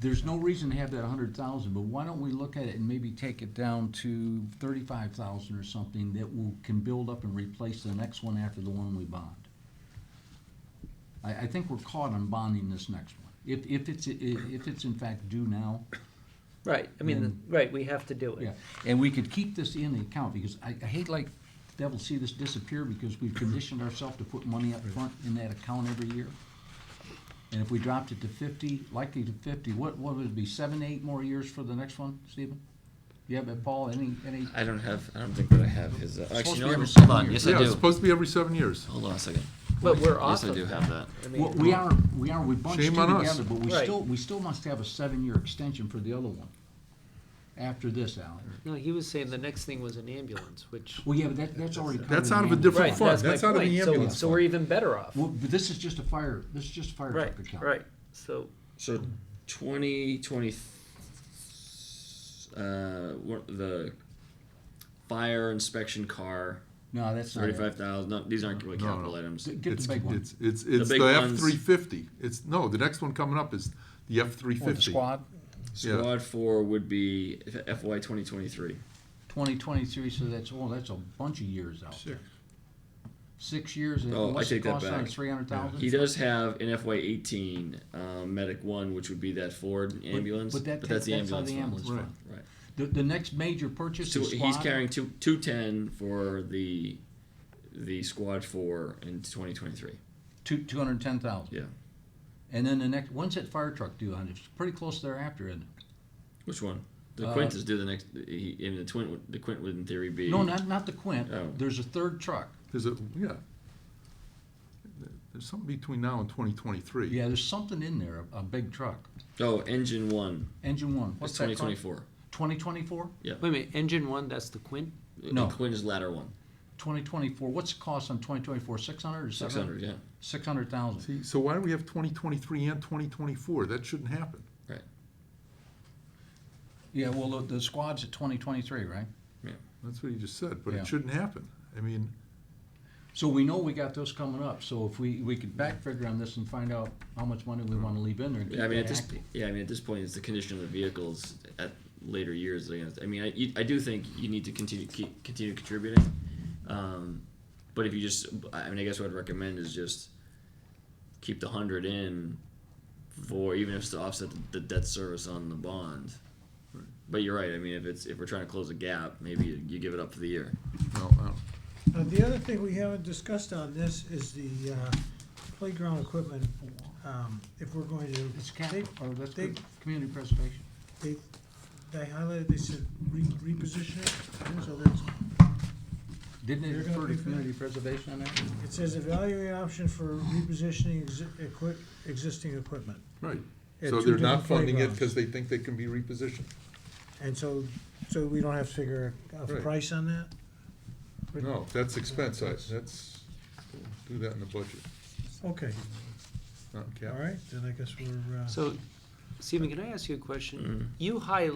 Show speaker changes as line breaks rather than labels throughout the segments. there's no reason to have that hundred thousand, but why don't we look at it and maybe take it down to thirty-five thousand or something that will, can build up and replace the next one after the one we bond? I, I think we're caught on bonding this next one, if, if it's, i- if it's in fact due now.
Right, I mean, right, we have to do it.
Mm. Yeah, and we could keep this in the account, because I, I hate like devil see this disappear, because we've conditioned ourselves to put money up front in that account every year. And if we dropped it to fifty, likely to fifty, what, what would it be, seven, eight more years for the next one, Stephen? You have, it, Paul, any, any,
I don't have, I don't think that I have his, uh,
supposed
actually,
to be
no,
every
hold
seven
on,
years.
yes, I
Yeah, it's
do.
supposed to be every seven years.
Hold on a second.
But we're off
Yes, I
of
do
that.
have that.
I mean,
Well, we are, we are, we bunched two
Shame on us.
together, but we
Right.
still, we still must have a seven-year extension for the other one. After this, Alex.
No, he was saying the next thing was an ambulance, which,
Well, yeah, but that, that's already covered.
That's
in
out of a
the-
different
right,
fund.
that's my
That's out of the
point, so,
ambulance
so we're even better off.
Well, but this is just a fire, this is just a fire
Right,
truck account.
right, so,
So twenty twenty, uh, what- the fire inspection car,
No, that's not it.
thirty-five thousand, no, these aren't really
No, no.
capital items.
Get
It's,
the big one.
it's, it's, it's
big
the
ones.
F three fifty. It's, no, the next one coming up is the F three
Or Oh, the
fifty.
squad,
Yeah.
Squad four would be FY twenty twenty-three.
twenty twenty-three, so that's, oh, that's a bunch of years out.
Sure.
Six years, and
Oh, I
what's
take
it
that
cost on
back.
three hundred
He
thousand?
does have an FY eighteen, um, medic one, which would be that Ford ambulance,
But that,
but
that's
that's the
out of
ambulance
the ambulance
fund.
Right.
fund.
Right.
The, the next major purchase
So
is
he's
squad,
carrying two two ten for the the squad four in twenty twenty three.
two, two hundred and ten thousand.
Yeah.
And then the next, when's that fire truck due on? It's pretty close thereafter, isn't it?
Which one? The
Uh,
Quint is due the next. He, in the twin, the Quint would in theory be.
No, not, not the Quint.
Oh.
There's a third truck.
There's a, yeah. There's something between now and twenty twenty-three.
Yeah, there's something in there, a, a big truck.
Oh, engine one.
Engine one,
It's
what's
twenty
that
twenty
called?
four.
Twenty twenty-four?
wait a minute, engine one, that's the Quint?
No.
Quint is ladder one.
Twenty twenty-four, what's the cost on twenty twenty-four? Six hundred or
Six
seven
hundred.
hundred?
Yeah.
Six hundred thousand.
See, so why do we have twenty twenty-three and twenty twenty-four? That shouldn't happen.
Right.
Yeah, well, the, the squad's at twenty twenty-three, right?
That's what you just said, but
Yeah.
it shouldn't happen. I mean,
So we know we got those coming up, so if we, we could back figure on this and find out how much money we wanna leave in there. and
Yeah, I
keep
mean
that
at this.
active.
Yeah, I mean at this point, it's the condition of the vehicles at later years. I guess. I mean, I, you- I do think you need to continue keep, continue contributing. Um, but if you just, I mean, I guess what I'd recommend is just keep the hundred in for even if it's to offset the, the debt service on the bond. But you're right. I mean, if it's if we're trying to close a gap, maybe you, you give it up for the year.
no, I don't-
Now, Uh, the other thing we haven't discussed on this is the uh, playground equipment. Um, If we're going to,
It's
they,
capital, or that's
they-
good, community preservation.
they, they highlighted, they said re- reposition it, so that's,
Didn't it
You're gonna
refer to
pay for that?
community preservation on that?
it says evaluate option for repositioning exi- equi- existing equipment.
right.
at
So
two
they're not
different
funding it
playgrounds.
because they think they can be repositioned.
And so, so we don't have to figure a
Right.
price on that?
No, that's expense. I, that's, do that in the budget,
Okay,
not in
all
capital.
right, then I guess we're, uh,
So, Stephen, can I ask you a
Mm.
question? You high,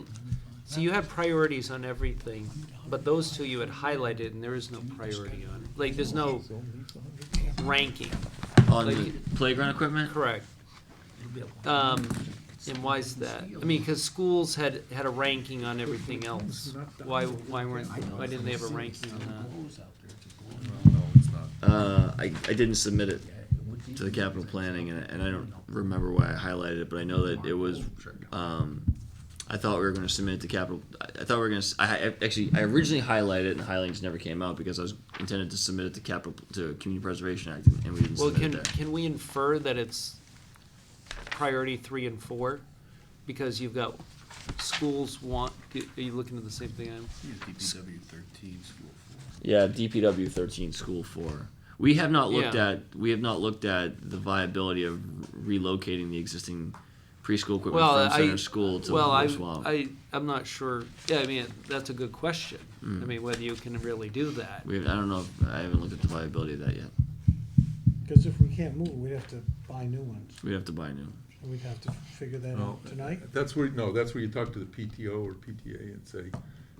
so you had priorities on everything, but those two you had highlighted and there is no priority on. Like, there's no ranking,
On the
Like-
playground equipment.
correct? Um, and why is that? I mean, cause schools had, had a ranking on everything else. Why, why weren't, why didn't they have a ranking uh? on that?
No, it's not.
Uh, I, I didn't submit it to the capital planning, and, and I don't remember why I highlighted it, but I know that it was, um, I thought we were gonna submit it to capital, I, I thought we were gonna, s- I, I- actually, I originally highlighted it, and the highlights never came out, because I was intended to submit it to capital, to Community Preservation Act, and we didn't
Well,
submit it
can,
there.
can we infer that it's priority three and four? Because you've got schools want, are you looking at the same thing I'm?
DPW thirteen, school four.
Yeah, DPW thirteen, school four. We have not looked
Yeah.
at, we have not looked at the viability of relocating the existing preschool equipment
Well,
from
I-
Center School to
Well, I,
Wolf Swamp.
I, I'm not sure, yeah, I mean, that's a good question. I
Hmm.
mean, whether you can really do that.
We, I don't know, if- I haven't looked at the viability of that yet.
because if we can't move, we'd have to buy new ones,
We'd have to buy new.
and we'd have to figure that
No,
out tonight.
That's where, no, that's where you talk to the PTO or PTA and say,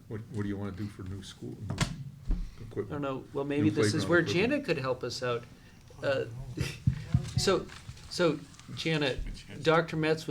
what, what do you wanna do for new school, new
I don't
equipment?
know, well, maybe this is
playground
where
equipment.
Janet could help us Uh, out. Uh, So, so Janet, Dr. Metz